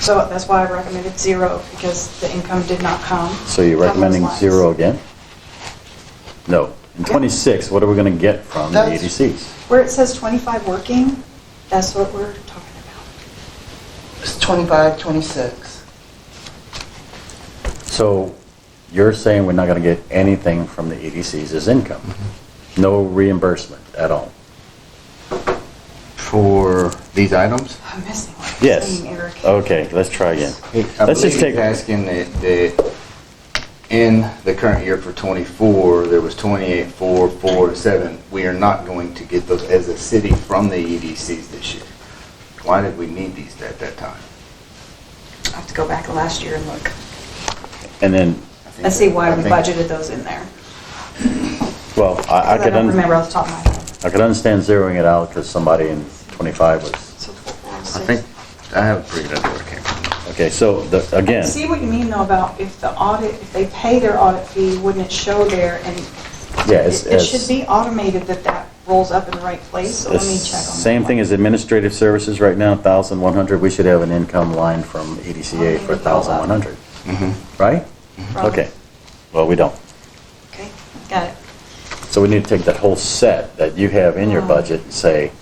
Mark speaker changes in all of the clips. Speaker 1: So that's why I recommended zero, because the income did not come.
Speaker 2: So you're
Speaker 1: from those
Speaker 2: recommending
Speaker 1: lines.
Speaker 2: zero again? No. In 26, what are we going to get from the
Speaker 1: That's-
Speaker 2: ADCs?
Speaker 1: Where it says 25 working, that's what we're talking about.
Speaker 3: It's 25, 26.
Speaker 2: So you're saying we're not going to get anything from the ADCs as income? No reimbursement at all?
Speaker 4: for these items?
Speaker 1: I'm missing one.
Speaker 2: Yes.
Speaker 1: Dang, Eric.
Speaker 2: Okay, let's try again.
Speaker 4: I
Speaker 2: Let's just
Speaker 4: believe
Speaker 2: take,
Speaker 4: he's asking that, that in the current year for twenty-four, there was twenty-eight, four, four, seven. We are not going to get those as a city from the EDCs this year. Why did we need these at that time?
Speaker 1: I have to go back to last year and look.
Speaker 2: and then,
Speaker 4: I think
Speaker 1: Let's see
Speaker 4: that- I
Speaker 1: why we
Speaker 4: think-
Speaker 1: budgeted those in there.
Speaker 2: well, I I
Speaker 1: Because I
Speaker 2: could,
Speaker 1: don't remember
Speaker 2: un-
Speaker 1: off the top of my head.
Speaker 2: I could understand zeroing it out because somebody in 25 was,
Speaker 1: So four, four,
Speaker 4: I
Speaker 1: six.
Speaker 4: think, I have a pretty good idea where it came from.
Speaker 2: okay, so the- again,
Speaker 1: See what you mean though about if the audit, if they pay their audit fee, wouldn't it show there? And
Speaker 2: yeah,
Speaker 1: it
Speaker 2: it's...
Speaker 1: it
Speaker 2: it's-
Speaker 1: should be automated that that rolls up in the right place, so let me check on that.
Speaker 2: Same thing as administrative services right now, 1,100, we should have an income line from EDCA for 1,100, right?
Speaker 1: Problem.
Speaker 2: Okay, well, we don't.
Speaker 1: Okay, got it.
Speaker 2: So we need to take that whole set that you have in
Speaker 1: Uh-huh.
Speaker 2: your budget and say,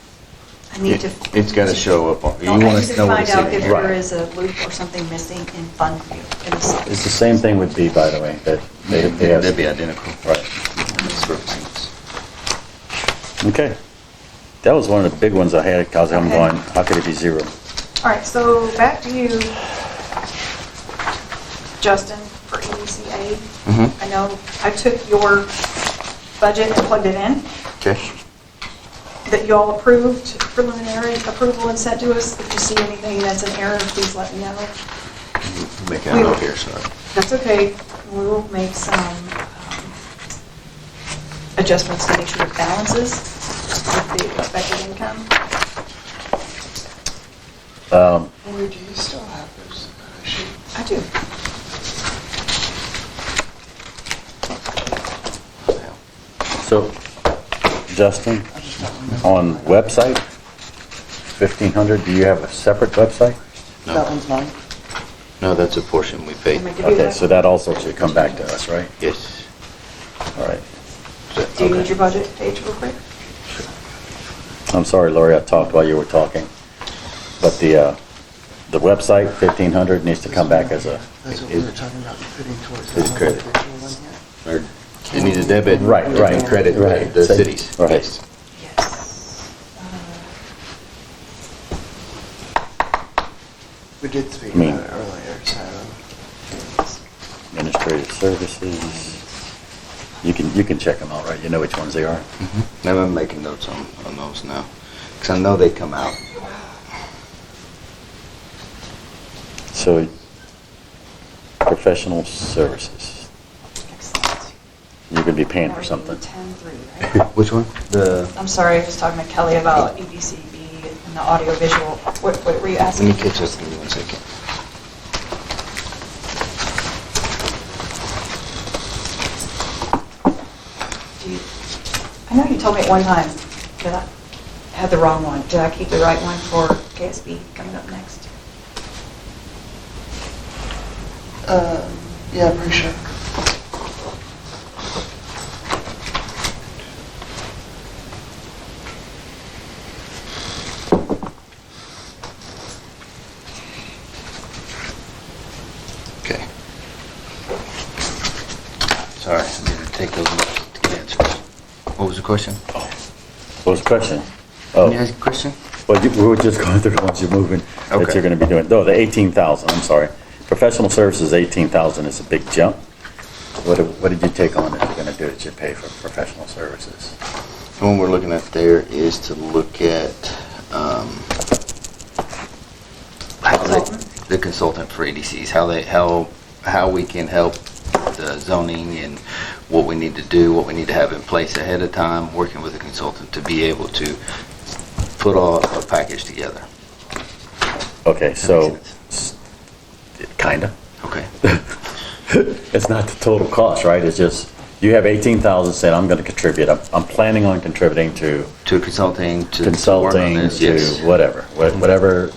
Speaker 1: I need to.
Speaker 4: It- it's gotta show up on- you
Speaker 1: No, I
Speaker 4: wanna
Speaker 1: need to
Speaker 4: know what
Speaker 1: find
Speaker 4: it's
Speaker 1: out
Speaker 4: in.
Speaker 1: if
Speaker 2: Right.
Speaker 1: there is a loop or something missing in Fund View. in the site.
Speaker 2: it's the same thing with B, by the way, that they they have.
Speaker 4: That'd be identical.
Speaker 2: Right,
Speaker 4: Services.
Speaker 2: okay. That was one of the big ones I had, because I'm
Speaker 1: Okay.
Speaker 2: going, how could it be zero?
Speaker 1: All right, so back to you, Justin, for EDCA.
Speaker 4: Mhm.
Speaker 1: I know I took your budget and plugged it in
Speaker 4: Okay.
Speaker 1: that y'all approved, preliminary approval and sent to us. If you see anything that's an error, please let me know.
Speaker 4: Make it out here, sorry.
Speaker 1: That's okay. We will make some um, adjustments to make sure it balances with the expected income.
Speaker 2: Um,
Speaker 3: Lori, do you still have those sheets?
Speaker 1: I do.
Speaker 2: So, Justin, on website, 1,500, do you have a separate website?
Speaker 4: No.
Speaker 3: That one's mine.
Speaker 4: No, that's a portion we paid.
Speaker 1: Am I good?
Speaker 2: Okay, so that also should come back to us, right?
Speaker 4: Yes.
Speaker 2: All right.
Speaker 1: Do you need your budget page real quick?
Speaker 2: I'm sorry, Lori, I talked while you were talking. But the, uh, the website, 1,500, needs to come back as a,
Speaker 3: That's what we were
Speaker 2: it-
Speaker 3: talking about putting towards.
Speaker 4: It's
Speaker 3: that
Speaker 4: credit.
Speaker 3: individual one here.
Speaker 4: Or It needs a debit.
Speaker 2: Right, right,
Speaker 4: and Credit,
Speaker 2: right.
Speaker 4: to the
Speaker 2: So-
Speaker 4: cities.
Speaker 2: right.
Speaker 4: Yes.
Speaker 1: Yes.
Speaker 3: We did speak
Speaker 2: I mean-
Speaker 3: about it earlier, so. um,
Speaker 2: administrative services. You can, you can check them out, right? You know which ones they are.
Speaker 4: Now I'm Mm-hmm. making notes on, on those now, because I know they come out.
Speaker 2: So, professional services,
Speaker 1: Excellent.
Speaker 2: you're gonna be paying for something.
Speaker 1: 10.3, right?
Speaker 4: Which one? The,
Speaker 1: I'm sorry, I was talking to Kelly about E EDCB and the audiovisual. What what were you
Speaker 4: let
Speaker 1: asking?
Speaker 4: me catch up, give me one second.
Speaker 1: Do you- I know you told me at one time that I had the wrong one. Did I keep the right one for KSB coming up next?
Speaker 3: Um, Yeah, pretty sure.
Speaker 4: Okay. Sorry, I didn't take those notes to get answers. What was the question?
Speaker 2: What was the question?
Speaker 4: Can you
Speaker 2: Oh,
Speaker 4: ask a question?
Speaker 2: well, you- we were just going through the ones you're moving, that
Speaker 4: Okay.
Speaker 2: you're gonna be doing. No, the 18,000, I'm sorry. Professional services, 18,000 is a big jump. What, did- what did you take on if you're gonna do it, you pay for professional services?
Speaker 4: The one we're looking at there is to look at, um, how they-
Speaker 1: Consultant.
Speaker 4: the consultant for EDCs, how they, how, how we can help the zoning and what we need to do, what we need to have in place ahead of time, working with a consultant to be able to put all a package together.
Speaker 2: Okay, so,
Speaker 4: makes
Speaker 2: s- kinda.
Speaker 4: Okay.
Speaker 2: It's not the total cost, right? It's just, you have 18,000 said, I'm gonna contribute, I'm, I'm planning on contributing to
Speaker 4: To consulting, to. to work on
Speaker 2: consulting,
Speaker 4: this,
Speaker 2: to
Speaker 4: yes.
Speaker 2: whatever, wha- whatever